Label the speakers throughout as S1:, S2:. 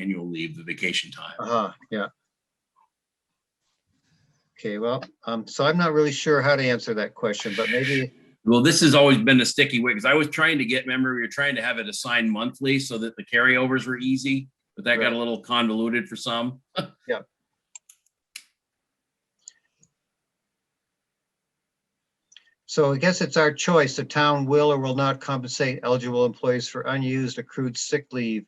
S1: annual leave, the vacation time.
S2: Uh-huh, yeah. Okay, well, um, so I'm not really sure how to answer that question, but maybe,
S1: Well, this has always been a sticky way because I was trying to get, remember, we were trying to have it assigned monthly so that the carryovers were easy, but that got a little convoluted for some.
S2: so I guess it's our choice. The town will or will not compensate eligible employees for unused accrued sick leave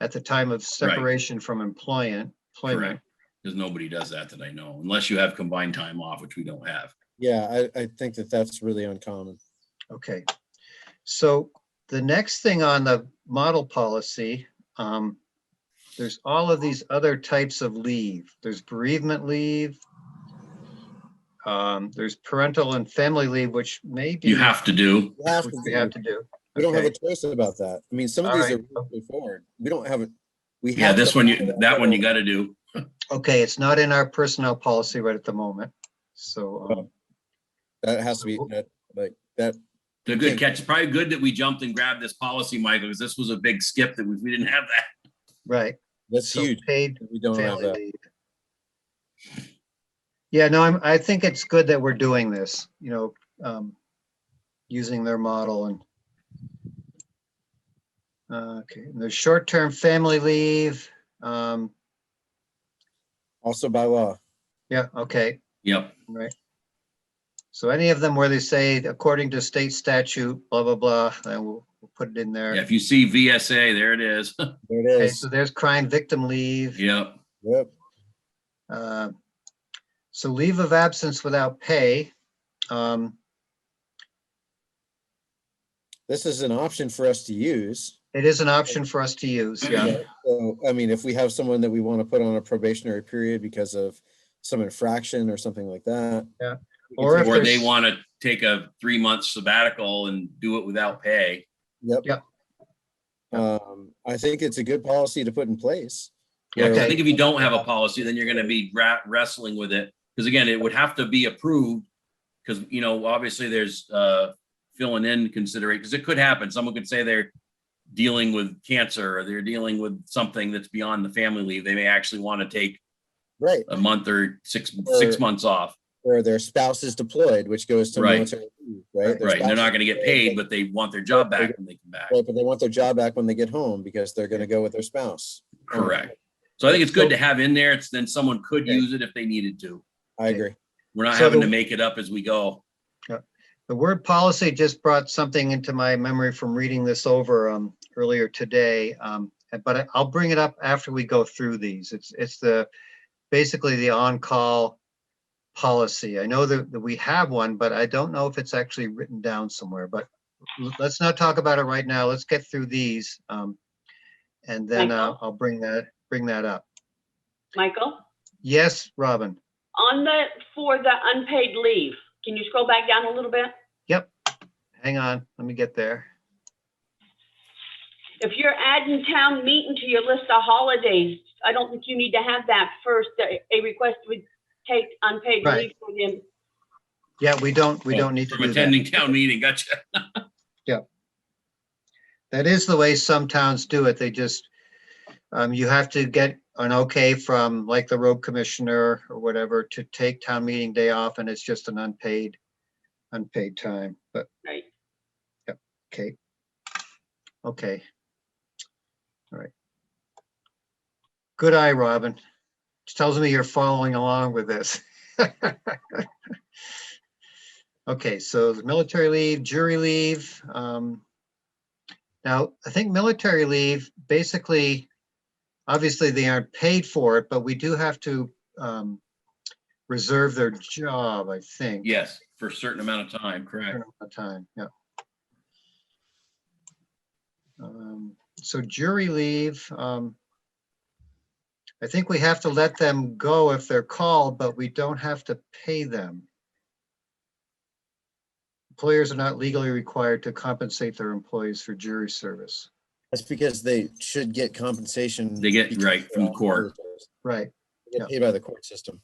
S2: at the time of separation from employment, employment.
S1: Correct. Because nobody does that that I know, unless you have combined time off, which we don't have.
S3: Yeah, I, I think that that's really uncommon.
S2: Okay. So the next thing on the model policy, um, there's all of these other types of leave. There's bereavement leave. Um, there's parental and family leave, which may be.
S1: You have to do.
S3: We have
S2: which
S3: to
S2: We have
S3: do-
S2: to do.
S3: we don't have a
S2: Okay.
S3: choice about that. I mean, some of
S2: All
S3: these are
S2: right.
S3: really forward. We don't have it. We
S1: Yeah,
S3: have
S1: this
S3: to
S1: one,
S3: follow
S1: you that one you
S3: rule.
S1: got to do.
S2: Okay, it's not in our personnel policy right at the moment. So, um,
S3: That has to be, that- like, that,
S1: It's a good catch. It's probably good that we jumped and grabbed this policy, Michael, because this was a big skip that we, we didn't have that.
S2: right.
S3: that's
S2: so
S3: huge.
S2: Paid
S3: We don't have
S2: family
S3: that.
S2: leave. Yeah, no, I'm, I think it's good that we're doing this, you know, um, using their model and. Uh, Okay, and there's short-term family leave, um,
S3: Also by law.
S2: yeah, okay,
S1: Yep.
S2: right. So any of them where they say according to state statute, blah, blah, blah, then we'll, we'll put it in
S1: Yeah,
S2: there.
S1: If you see VSA, there it is.
S3: There it
S2: Okay,
S3: is.
S2: so there's crime victim leave.
S1: Yep.
S3: Yep.
S2: Uh, So leave of absence without pay. um,
S3: This is an option for us to use.
S2: It is an option for us to use, yeah.
S3: So, I mean, if we have someone that we want to put on a probationary period because of some infraction or something like that.
S2: Yeah.
S3: we can
S2: Or
S3: take-
S1: Or they
S2: there's-
S1: want to take a three month sabbatical and do it without pay.
S3: Yep.
S2: Yep.
S3: Um, I think it's a good policy to put in place.
S1: Yeah, 'cause I
S2: Okay.
S1: think if you don't have a policy, then you're gonna be ra- wrestling with it, because again, it would have to be approved. Because, you know, obviously there's uh filling in considerate, because it could happen. Someone could say they're dealing with cancer or they're dealing with something that's beyond the family leave. They may actually want to take
S3: Right.
S1: a month or six, six
S2: Uh,
S3: Or-
S1: months off.
S3: Or their spouse is deployed, which goes to
S1: Right.
S3: military leave, right? Their
S1: Right, and they're
S3: spouse
S1: not
S3: is
S1: gonna get
S3: deployed,
S1: paid, but they want their job back when they come back.
S3: Right, but they want their job back when they get home because they're gonna go with their spouse.
S1: Correct. So I think it's good to have in there. It's then someone could use it if they needed to.
S3: I agree.
S1: We're not
S2: So
S1: having
S2: the-
S1: to make it up as we go.
S2: The word policy just brought something into my memory from reading this over um, earlier today. um, But I- I'll bring it up after we go through these. It's, it's the, basically the on-call policy. I know that that we have one, but I don't know if it's actually written down somewhere. But l- let's not talk about it right now. Let's get through these. um, And then uh,
S4: Michael?
S2: I'll bring that, bring that up.
S4: Michael,
S2: Yes, Robin?
S4: on the, for the unpaid leave, can you scroll back down a little bit?
S2: Hang on, let me get there.
S4: If you're adding town meeting to your list of holidays, I don't think you need to have that first. A a request would take unpaid
S2: Right.
S4: leave for them.
S2: Yeah, we don't, we don't need to
S1: From
S2: do that.
S1: attending town meeting, gotcha.
S2: That is the way some towns do it. They just, um, you have to get an okay from like the road commissioner or whatever to take town meeting day off and it's just an unpaid, unpaid time, but.
S4: Right.
S2: Yep, okay. Okay. All right. Good eye, Robin. Tells me you're following along with this. Okay, so the military leave, jury leave, um, now, I think military leave, basically, obviously they aren't paid for it, but we do have to um, reserve their job, I think.
S1: Yes, for a certain amount of time, correct.
S2: certain amount of Time, yeah. Um, So jury leave, um, I think we have to let them go if they're called, but we don't have to pay them. Employers are not legally required to compensate their employees for jury service.
S3: That's because they should get compensation.
S1: They get,
S3: because
S1: right, from
S3: they're on
S1: court.
S3: military.
S2: Right, Yeah.
S3: They Get paid by the court system.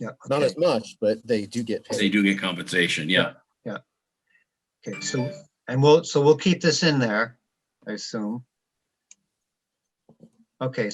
S2: yeah.
S3: Not
S2: okay.
S3: as much, but they do get
S1: They
S3: paid.
S1: do get compensation, yeah.
S2: Okay, so, and we'll, so we'll keep this in there, I assume. Okay,